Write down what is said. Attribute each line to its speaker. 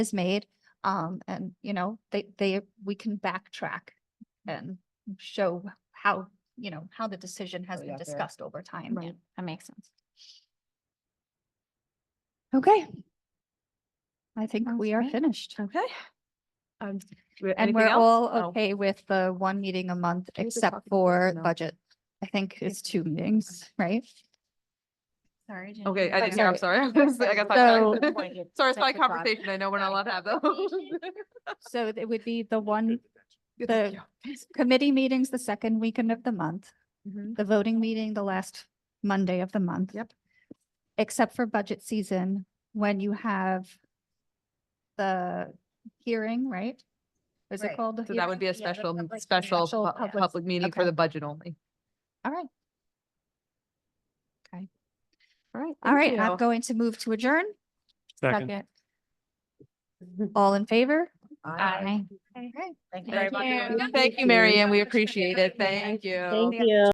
Speaker 1: is made. Um, and you know, they, they, we can backtrack and show how, you know, how the decision has
Speaker 2: we
Speaker 1: been
Speaker 2: got there.
Speaker 1: discussed over time.
Speaker 3: Right, that makes sense.
Speaker 1: Okay. I think
Speaker 3: Sounds
Speaker 1: we are
Speaker 3: great.
Speaker 1: finished.
Speaker 2: Okay. Um, do we have
Speaker 1: And
Speaker 2: anything
Speaker 1: we're
Speaker 2: else?
Speaker 1: all
Speaker 2: Oh,
Speaker 1: okay with the one meeting a month
Speaker 2: We were
Speaker 1: except
Speaker 2: talking about
Speaker 1: for
Speaker 2: personnel.
Speaker 1: budget. I think it's two meetings, right?
Speaker 3: Sorry.
Speaker 2: Okay, I
Speaker 1: But
Speaker 2: didn't hear, I'm sorry. I got
Speaker 1: So-
Speaker 2: sidetracked. Sorry, it's my conversation. I know we're not allowed to have those.
Speaker 1: So it would be the one The- committee meetings the second weekend of the month,
Speaker 2: Mhm.
Speaker 1: the voting meeting the last Monday of the month.
Speaker 2: Yep.
Speaker 1: Except for budget season, when you have the hearing, right? Is it
Speaker 3: Right.
Speaker 1: called? the
Speaker 2: So that
Speaker 1: hearing?
Speaker 2: would be a
Speaker 3: Yeah, the
Speaker 2: special,
Speaker 3: public-
Speaker 2: special
Speaker 1: special
Speaker 2: pu-
Speaker 1: public-
Speaker 2: public meeting for
Speaker 1: okay.
Speaker 2: the budget only.
Speaker 1: All right,
Speaker 2: All right.
Speaker 1: all right. I'm going to move to adjourn.
Speaker 4: Second.
Speaker 1: All in favor?
Speaker 3: Aye.
Speaker 1: Okay.
Speaker 3: Thank
Speaker 1: Thank
Speaker 3: very much.
Speaker 1: you.
Speaker 2: Thank you, Mary Ann. We appreciate it. Thank you.
Speaker 5: Thank you.